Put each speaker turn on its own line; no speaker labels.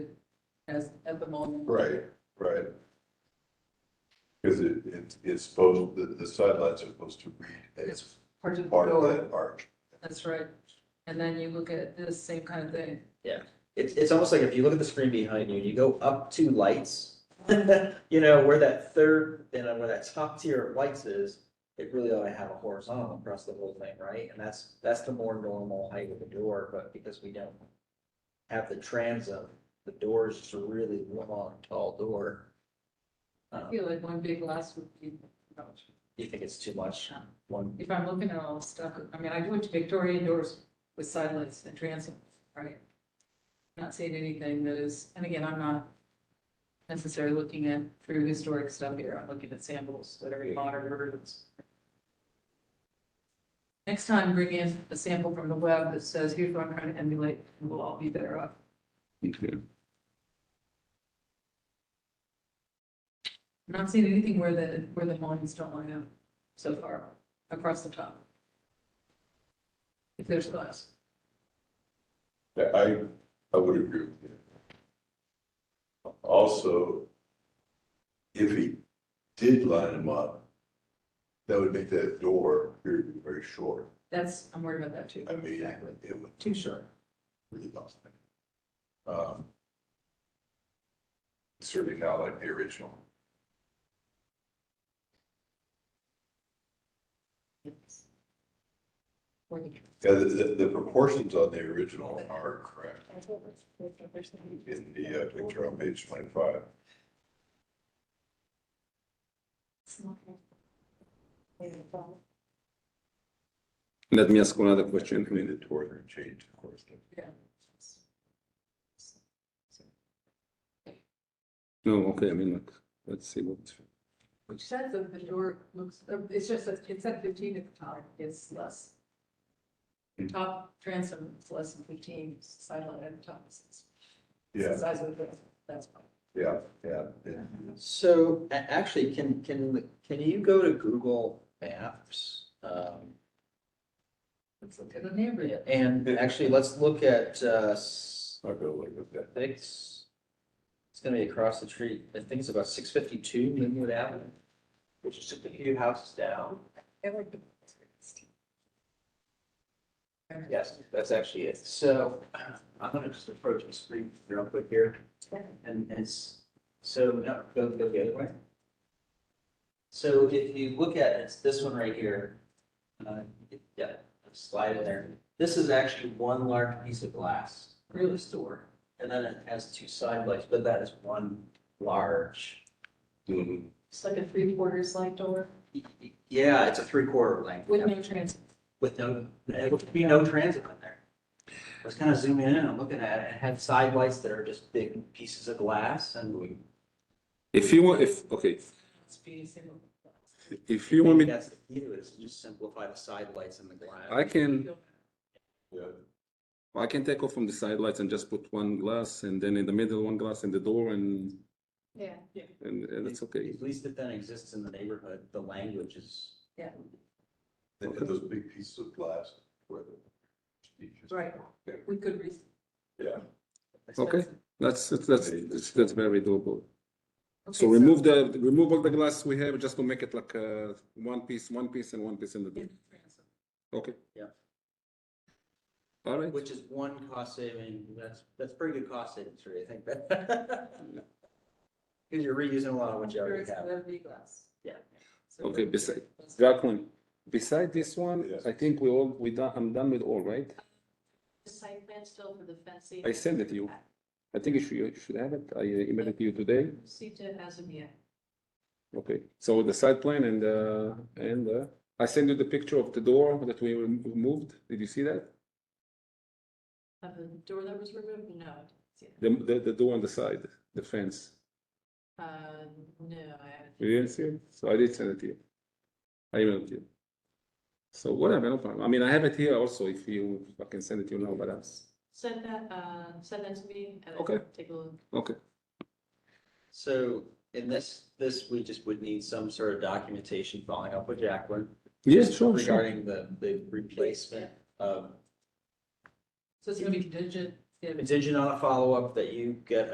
as, at the moment.
Right, right. Because it, it, it's supposed, the, the sidelines are supposed to read as
Part of the
part of
door,
that arch.
that's right. And then you look at this same kind of thing.
It's, it's almost like if you look at the screen behind you, and you go up two lights, you know, where that third, and where that top tier of lights is, it really ought to have a horizontal across the whole thing, right? And that's, that's the more normal height of the door, but because we don't have the transom, the door is just a really long, tall door.
I
Um,
feel like one big glass would be,
You think it's too much, one,
if I'm looking at all the stuff, I mean, I went to Victorian doors with silence and transom, right? Not seeing anything that is, and again, I'm not necessarily looking at true historic stuff here, I'm looking at samples that are modern versions. Next time, bring in a sample from the web that says, here's what I'm trying to emulate, and we'll all be better off. I'm Not seeing anything where the, where the lines don't line up so far across the top. If there's glass.
Yeah, I, I would agree with you. Also, if he did line them up, that would make that door very, very short.
That's, I'm worried about that too.
I mean, it would
Too short.
really lost me. Um, Certainly not like the original.
Yes. Or the-
Yeah, the, the, the proportions on the original are correct in the uh, picture on page twenty-five.
Let me ask another question.
I mean, the door there changed, of course.
No, okay, I mean, like, let's see what.
Which says that the door looks, uh, it's just, that it's at fifteen at the top, it's less.
Hmm.
Top transom is less than fifteen, silent at the top. is- is the
Yeah,
Size of the, that's fine.
yeah, yeah, yeah.
So a- actually, can, can, can you go to Google Maps? Um,
Let's look at a neighborhood.
and actually, let's look at, uh, s-
I'll go like with that.
I think it's, it's gonna be across the street, I think it's about six fifty-two Linwood Avenue. Which is just a few houses down. Yes, that's actually it. So I'm gonna just approach the screen real quick here. And it's, so, no, go, go the other way. So if you look at it, it's this one right here. Uh, Yeah, slide in there. This is actually one large piece of glass, really store. And then it has two side lights, but that is one large.
Mm-hmm.
It's like a three quarters light door
Yeah, it's a three quarter length.
with no transom.
with no, there would be no transit in there. I was kind of zooming in and I'm looking at it, it had side lights that are just big pieces of glass and.
If you want, if, okay,
It's be a single.
if you want me,
That's the key to it, is just simplify the side lights in the glass.
I can,
Yeah,
I can take off from the side lights and just put one glass and then in the middle, one glass in the door and,
Yeah.
and, and that's okay.
At least it then exists in the neighborhood, the language is.
and and those big pieces of glass where the.
Right. We could. re-
Yeah,
Okay. That's, that's, that's, that's very doable.
Okay,
So remove the, remove all the glass we have just to make it like, uh, one piece, one piece and one piece in the door.
transom.
Okay.
Yeah.
All right.
Which is one cost saving, that's, that's pretty good cost savings for you, I think. Because you're reusing a lot of what you
Or
already
it's
have.
the glass.
Yeah.
So-
Okay, beside, Jacqueline, beside this one,
Yes.
I think we all, we done, I'm done with all, right?
The site plan still for the fencing?
I sent it to you. I think you should, you should have it. I uh, emailed it to you today.
Received it as of yet.
Okay, so the site plan and, uh, and, uh, I sent you the picture of the door that we removed. Did you see that?
Of the door that was removed? No. I didn't see
The, the, the door on the side, the fence.
that. Uh, no, I haven't.
You didn't see it? So I did send it to you. I emailed you. So whatever, no problem. I mean, I have it here also if you, I can send it to you now, but I'm,
Send that, uh, send that to me and
Okay.
I'll take a look.
okay.
So in this, this, we just would need some sort of documentation following up with Jacqueline.
Yes, sure, sure.
Regarding the, the replacement of,
So it's gonna be contingent. if-
contingent on a follow-up that you get